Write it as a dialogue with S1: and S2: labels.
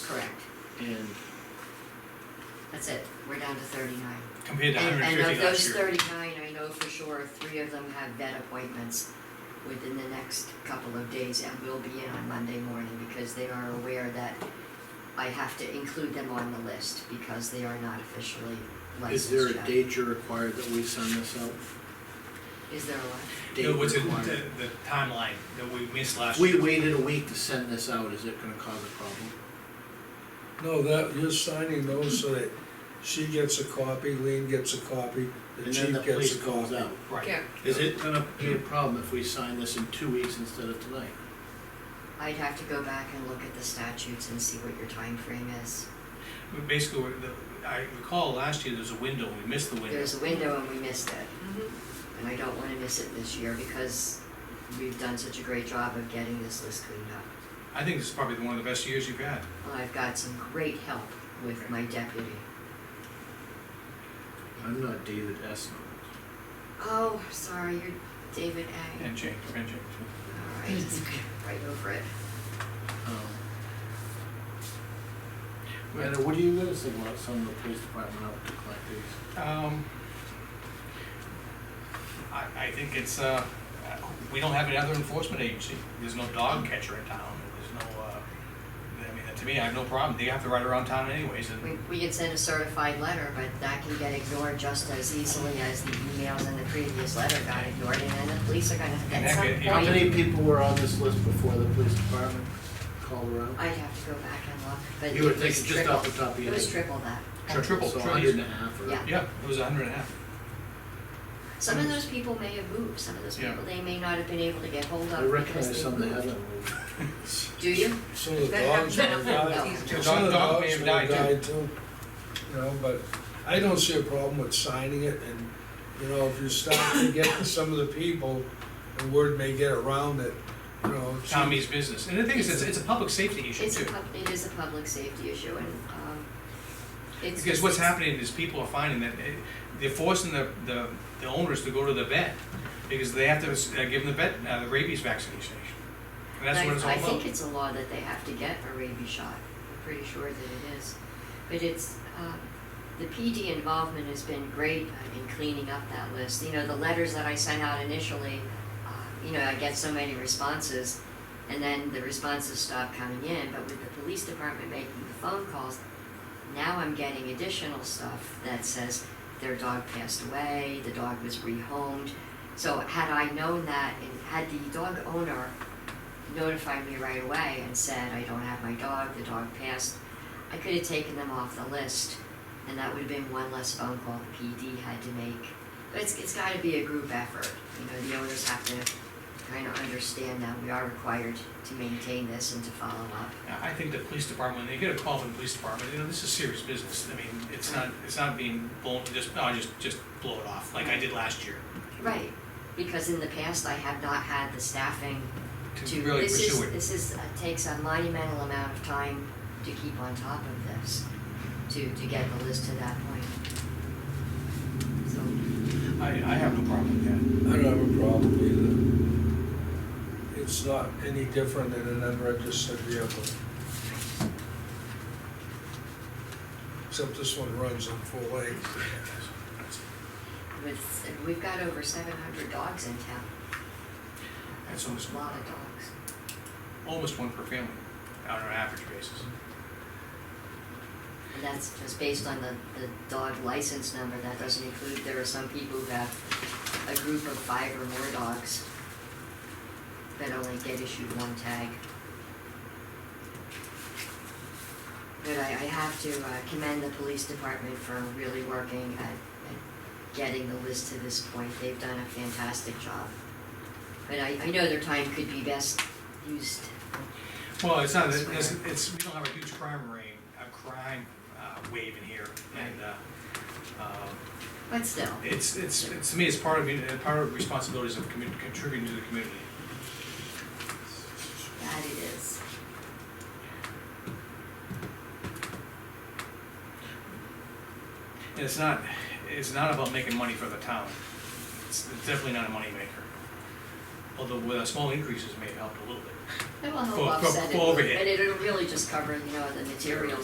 S1: Correct,
S2: And
S1: that's it, we're down to thirty-nine.
S3: compared to
S1: And-
S3: 150
S1: And of
S3: last
S1: those
S3: year.
S1: thirty-nine, I know for sure, three of them have vet appointments within the next couple of days and will be in on Monday morning because they are aware that I have to include them on the list because they are not officially
S2: is
S1: licensed
S2: there a
S1: yet.
S2: date you're required that we send this out?
S1: Is there a what?
S2: Date
S3: No, what's it-
S2: required?
S3: the, the timeline that we missed
S2: If
S3: last
S2: we
S3: year?
S2: waited a week to send this out, is it gonna cause a problem?
S4: No, that, you're signing those so that she gets a copy, Lean gets a copy, the
S2: And then the
S4: chief gets a
S2: police calls
S4: copy.
S2: out.
S3: Right,
S2: Is it gonna be a problem if we sign this in two weeks instead of tonight?
S1: I'd have to go back and look at the statutes and see what your time frame is.
S3: But basically, we're- the- I recall last year there was a window, we missed the window.
S1: There's a window and we missed it. And I don't wanna miss it this year because we've done such a great job of getting this list cleaned up.
S3: I think this is probably one of the best years you've had.
S1: Well, I've got some great help with my deputy.
S2: I'm not David S.
S1: Oh, sorry, you're David A.
S3: And Jane, and Jane.
S1: All right, it's okay, right over it.
S2: Um, Miranda, what do you guys think about some of the police department out to collect these?
S3: Um, I, I think it's, uh, uh, we don't have another enforcement agency. There's no dog catcher in town. There's no, uh, I mean, to me, I have no problem. They have to ride around town anyways and.
S1: We, we can send a certified letter, but that can get ignored just as easily as the emails in the previous letter got ignored, and then the police are gonna,
S3: And
S1: at
S3: that
S1: some
S3: get-
S1: point.
S2: How many people were on this list before the police department called around?
S1: I'd have to go back and look, but
S2: You were
S1: it was
S2: thinking just off the
S1: triple-
S2: top of
S1: It
S2: your
S1: was
S2: head?
S1: triple that.
S3: Tri- triple,
S2: So a
S3: triple.
S2: hundred and a half or?
S1: Yeah.
S3: Yeah, it was a hundred and a half.
S1: Some of those people may have moved, some of those
S3: Hmm. Yeah.
S1: people, they may not have been able to get hold of.
S2: I
S1: because
S2: recognize
S1: they
S2: some that
S1: moved.
S2: haven't moved.
S1: Do you?
S4: So the
S1: That
S4: dogs would
S1: happens.
S4: have died,
S1: No.
S3: The
S4: some
S3: dog-
S4: of
S3: dog
S4: the dogs
S3: may have
S4: would
S3: died,
S4: have died too. You know, but I don't see a problem with signing it and, you know, if you start to get to some of the people, the word may get around that, you know. she-
S3: Tommy's business. And the thing is, it's, it's a public safety issue
S1: It's a,
S3: too.
S1: pub- it is a public safety issue and, um, it's.
S3: Because what's happening is people are finding that eh, they're forcing the, the, the owners to go to the vet because they have to uh, give them the vet, uh, the rabies vaccination. And that's
S1: I-
S3: what it's all
S1: I think
S3: about.
S1: it's a law that they have to get a rabies shot, I'm pretty sure that it is. But it's, um, the PD involvement has been great uh, in cleaning up that list. You know, the letters that I sent out initially, uh, you know, I get so many responses, and then the responses stop coming in, but with the police department making the phone calls, now I'm getting additional stuff that says their dog passed away, the dog was rehomed. So had I known that, and had the dog owner notified me right away and said, I don't have my dog, the dog passed, I could have taken them off the list, and that would have been one less phone call the PD had to make. But it's, it's gotta be a group effort, you know, the owners have to kind of understand that we are required to maintain this and to follow up.
S3: I I think the police department, when they get a call from the police department, you know, this is serious business. I mean, it's not, it's not being blown, just, oh, just, just blow it off, like I did last year.
S1: Right, because in the past, I have not had the staffing
S3: To
S1: to,
S3: really
S1: this is,
S3: pursue it.
S1: this is, uh, takes a monumental amount of time to keep on top of this, to, to get the list to that point. So,
S3: I, I have no problem with that.
S4: I don't have a problem either. It's not any different than an unregistered vehicle. Except this one runs on four legs.
S1: with, we've got over seven hundred dogs in town,
S3: That's
S1: a
S3: almost,
S1: lot of dogs.
S3: almost one per family on an average basis.
S1: And that's just based on the, the dog license number, that doesn't include, there are some people who have a group of five or more dogs that only get issued one tag. But I, I have to uh, commend the police department for really working at, at getting the list to this point, they've done a fantastic job. But I, I know their time could be best used
S3: Well, it's not,
S1: That's
S3: it's,
S1: right.
S3: it's, we don't have a huge crime reign, a crime uh, wave in here, and, uh, um,
S1: But still,
S3: it's, it's, it's, to me, it's part of, uh, part of responsibilities of commu- contributing to the community.
S1: that it is.
S3: And it's not, it's not about making money for the town, it's it's definitely not a moneymaker. Although with a small increases may have helped a little bit.
S1: It will help
S3: For- for-
S1: offset it,
S3: for
S1: and
S3: overhead.
S1: it'll really just cover, you know, the materials